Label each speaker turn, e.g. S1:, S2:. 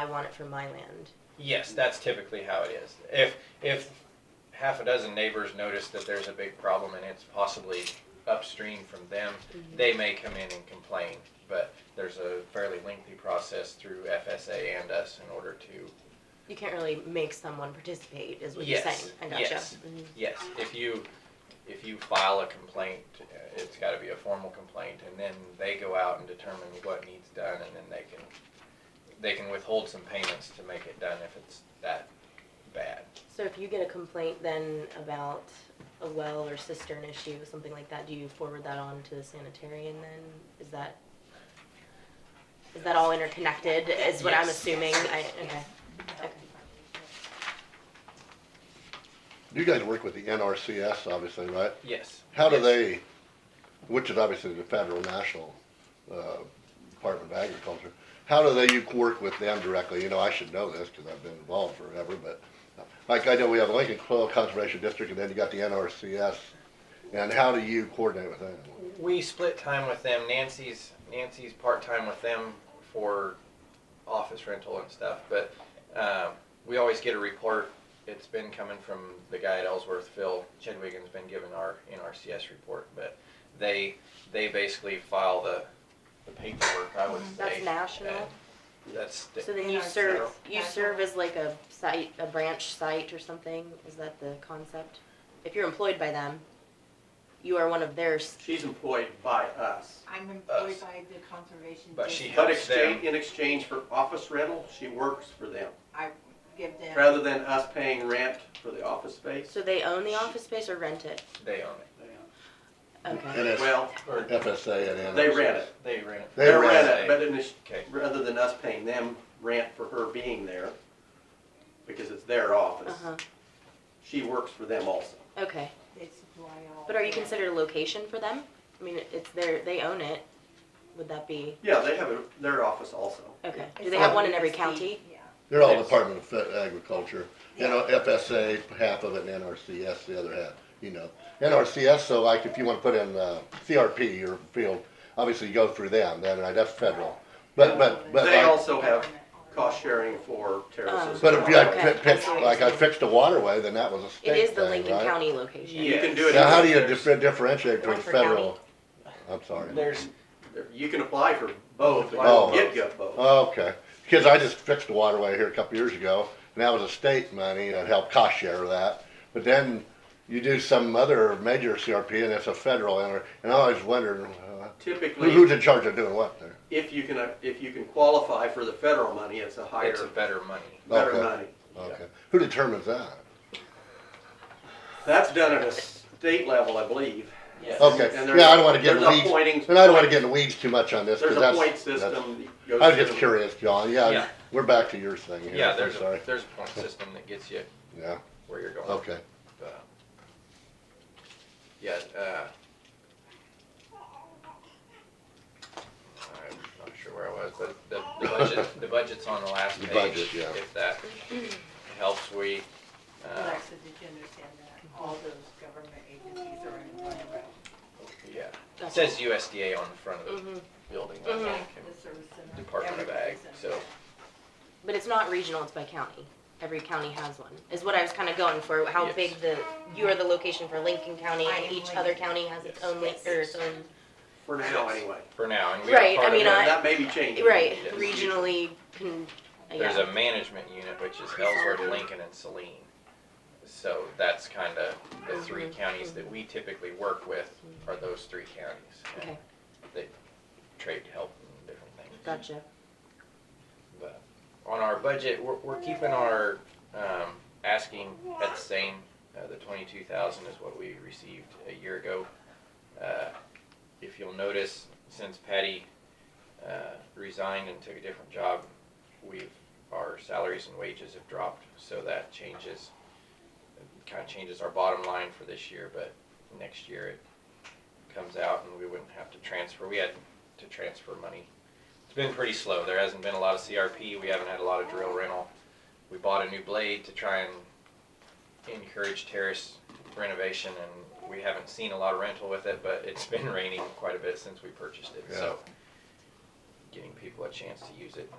S1: I want it for my land.
S2: Yes, that's typically how it is. If, if half a dozen neighbors notice that there's a big problem and it's possibly upstream from them, they may come in and complain, but there's a fairly lengthy process through FSA and us in order to,
S1: You can't really make someone participate, is what you're
S2: Yes,
S1: saying. I gotcha.
S2: yes.
S1: Mhm.
S2: yes, if you, if you file a complaint, uh, it's gotta be a formal complaint, and then they go out and determine what needs done, and then they can, they can withhold some payments to make it done if it's that bad.
S1: So if you get a complaint then about a well or cistern issue, something like that, do you forward that on to the sanitarian then? Is that, is that all interconnected, is what I'm
S2: Yes.
S1: assuming? I, okay. Okay.
S3: You guys work with the NRCS, obviously, right?
S2: Yes.
S3: How do
S2: Yes.
S3: they, which is obviously the federal national, uh, Department of Agriculture, how do they, you work with them directly? You know, I should know this, cause I've been involved forever, but, uh, like, I know we have Lincoln Soil Conservation District, and then you got the NRCS, and how do you coordinate with them?
S2: We split time with them. Nancy's Nancy's part time with them for office rental and stuff, but um, we always get a report. It's been coming from the guy at Ellsworth, Phil Chedwigan's been given our NRCS report, but they they basically file the the paperwork. I would
S1: That's
S2: say
S1: national?
S2: and That's the-
S1: So then you
S4: Yeah,
S1: serve,
S2: so-
S1: you serve as like a site, a branch site or something, is that the concept? If you're employed by them, you are one of theirs,
S5: She's employed by us.
S4: I'm
S2: Us.
S4: employed by the conservation
S2: But she
S4: district.
S5: But
S2: Helps them.
S5: exchange, in exchange for office rental, she works for them,
S4: I give them,
S5: rather than us paying rent for the office space.
S1: so they own the office space or rent it?
S2: they own it.
S1: Okay.
S3: And it's
S5: Well,
S2: Or
S3: FSA and NRCS.
S5: They rent it.
S2: they rent it.
S3: They
S5: they
S3: rent
S5: rent
S2: it.
S5: it, but in, ex-
S2: Okay.
S5: rather than us paying them rent for her being there, because it's their office,
S1: Uh-huh,
S5: she works for them also.
S1: okay.
S4: they supply all.
S1: But are you
S4: the-
S1: considered a location for them? I mean, it's their, they own it. Would that be,
S5: Yeah, they have a- their office also.
S1: okay. Do
S4: It's
S1: they have
S4: all
S1: one in every
S4: USD,
S1: county?
S4: Yeah.
S3: They're all
S2: Yes.
S3: Department of Fe- Agriculture, you know, FSA, half of it, and NRCS, the other half, you know. NRCS, so like if you wanna put in, uh, CRP or field, obviously you go through them, then, right, that's federal. But, but, but,
S5: They
S3: like-
S5: also have cost sharing for
S1: Um,
S5: terraces.
S3: but if you like
S1: Okay.
S3: fi- fix,
S1: I see.
S3: like I fixed a waterway, then that was a
S1: It
S3: state
S1: is the
S3: thing,
S1: Lincoln
S3: right?
S1: County location.
S5: You can do it.
S3: Now, how do you
S2: There's-
S3: differ- differentiate between
S1: Rutherford County.
S3: federal? I'm sorry.
S2: There's
S5: You can apply for both,
S3: Oh.
S5: you get both.
S3: Okay, because I just fixed the waterway here a couple years ago, and that was a state money, and it helped cost share that. But then you do some other major CRP, and it's a federal, and, and I always wondered, uh, who-
S5: Typically.
S3: who's in charge of doing what there?
S5: If you can, if you can qualify for the federal money, it's a higher,
S2: it's a better money.
S5: better
S3: Okay.
S5: money.
S3: Okay, who determines that?
S5: That's done at a state level, I believe.
S2: Yes.
S3: Okay,
S5: And
S3: yeah, I
S5: there's-
S3: don't wanna get in
S5: there's a
S3: weeds,
S5: pointing-
S3: and I don't wanna get in the weeds too much on this,
S5: There's
S3: because
S5: a
S3: that's.
S5: point
S3: that's-
S5: system that goes.
S3: I was just
S5: through.
S3: curious, John,
S2: Yeah.
S3: yeah, we're back to your thing here,
S2: Yeah,
S3: I'm
S2: there's a,
S3: sorry,
S2: there's a point system that gets you
S3: yeah,
S2: where you're going.
S3: okay.
S2: But, yeah, uh, I'm not sure where I was, but the, the budget, the budget's on the last
S3: The
S2: page.
S3: budget, yeah.
S2: If that helps, we, uh,
S4: Alexa, did you understand that all those government agencies are in one row?
S2: yeah, it
S1: Gotcha.
S2: says USDA on the front of the
S1: Mhm.
S2: building, I
S1: Mhm.
S2: think,
S4: The service center.
S2: and Department of Ag,
S4: everybody's in
S2: so.
S4: there.
S1: But it's not regional, it's by county. Every county has one, is what I was kinda going for, how
S2: Yes.
S1: big the, you are the location for Lincoln County
S4: I
S1: and
S4: am
S1: each
S4: Lincoln.
S1: other county has its
S2: Yes.
S1: own, link- or its own,
S5: For now, anyway.
S2: For now, and we are
S1: Right,
S2: part
S1: I
S2: of
S1: mean,
S2: a-
S1: I-
S5: That may be changing.
S1: right,
S2: Yes.
S1: regionally, con,
S2: There's
S1: yeah,
S2: a management unit, which is Ellsworth, Lincoln, and Saline. So that's kind of the three
S1: Mm-hmm.
S2: counties that we typically work with are those three counties. and
S1: Okay.
S2: They trade help and different things.
S1: gotcha.
S2: But on our budget, we're, we're keeping our, um, asking at the same, uh, the twenty-two thousand is what we received a year ago. Uh, If you'll notice, since Patty, uh, resigned and took a different job, we've, our salaries and wages have dropped, so that changes, kind of changes our bottom line for this year, but next year it comes out and we wouldn't have to transfer, we had to transfer money. It's been pretty slow, there hasn't been a lot of CRP, we haven't had a lot of drill rental. We bought a new blade to try and encourage terrace renovation and we haven't seen a lot of rental with it, but it's been raining quite a bit since we purchased it, so. Getting people a chance to use it